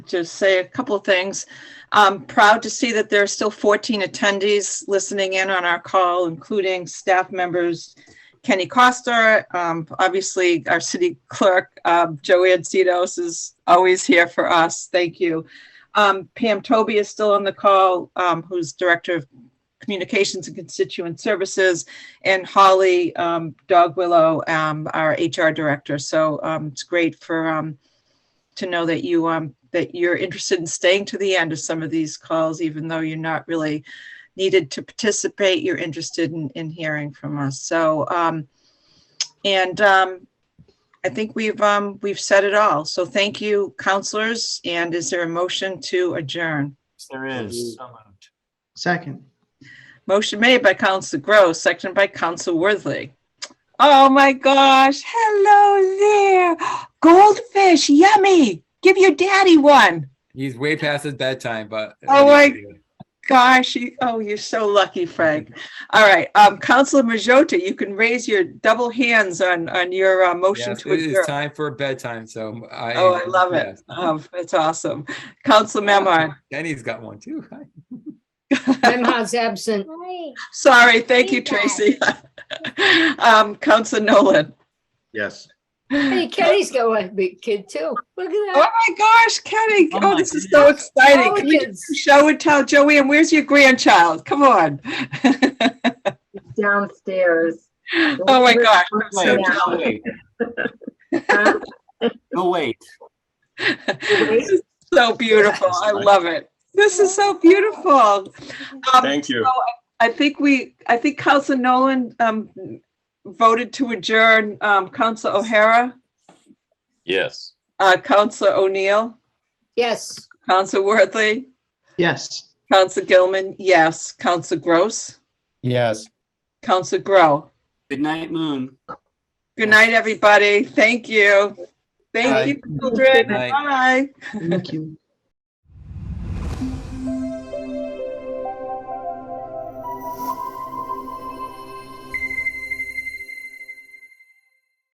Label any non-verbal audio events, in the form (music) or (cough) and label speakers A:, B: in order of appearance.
A: just say a couple of things. I'm proud to see that there are still 14 attendees listening in on our call, including staff members Kenny Costa, um, obviously our city clerk, um, Joanne Cedos is always here for us. Thank you. Um, Pam Toby is still on the call, um, who's Director of Communications and Constituent Services, and Holly um, Dog Willow, um, our HR Director. So um, it's great for um, to know that you um that you're interested in staying to the end of some of these calls, even though you're not really needed to participate, you're interested in in hearing from us. So um and um I think we've um we've said it all. So thank you, counselors. And is there a motion to adjourn?
B: Yes, There is. Oh, So moved.
C: Second.
A: Motion made by Council Grow, seconded by Council Worthley. Oh my gosh. Hello there. Goldfish, yummy. Give your daddy one.
D: He's way past his bedtime, but.
A: Oh my- Gosh, you, oh, you're so lucky,
D: (laughs)
A: Frank. All right, um, Counselor Majota, you can raise your double hands on, on your, uh, motion
D: Yes,
A: to
D: it is
A: adjourn.
D: time for bedtime, so I.
A: Oh, I love it.
D: yes.
A: Oh, that's awesome. Counselor Memard,
D: Danny's got one too. Hi.
E: Memhard's absent.
A: sorry, thank you,
E: Feedback.
A: Tracy. (laughs) Um, Counselor Nolan.
C: Yes.
E: Hey, Kenny's got one big kid too. Look at
A: Oh
E: that.
A: my gosh, Kenny,
B: Oh
A: oh,
B: my
A: this is so exciting.
E: Oh,
A: Can we do
E: kids.
A: some Show and tell, Joanne, where's your grandchild? Come on. (laughs)
F: downstairs.
A: Oh my gosh, I'm so
B: Wait,
F: Yeah.
A: jealous.
B: Go wait.
F: Huh?
B: (laughs) Go wait.
A: This is So beautiful. I love it. This is so beautiful. Thank you. I think we, I think Council Nolan um, voted to adjourn, um, Council O'Hara,
G: Yes.
A: uh, Council O'Neill,
E: Yes.
A: Council Worthley,
C: Yes.
A: Council Gilman, yes, Council Gross,
D: Yes.
A: Council Grow.
B: Good night, Moon.
A: Good night, everybody. Thank you. Thank you,
D: Good
A: children.
D: night.
A: Bye.
C: Thank you.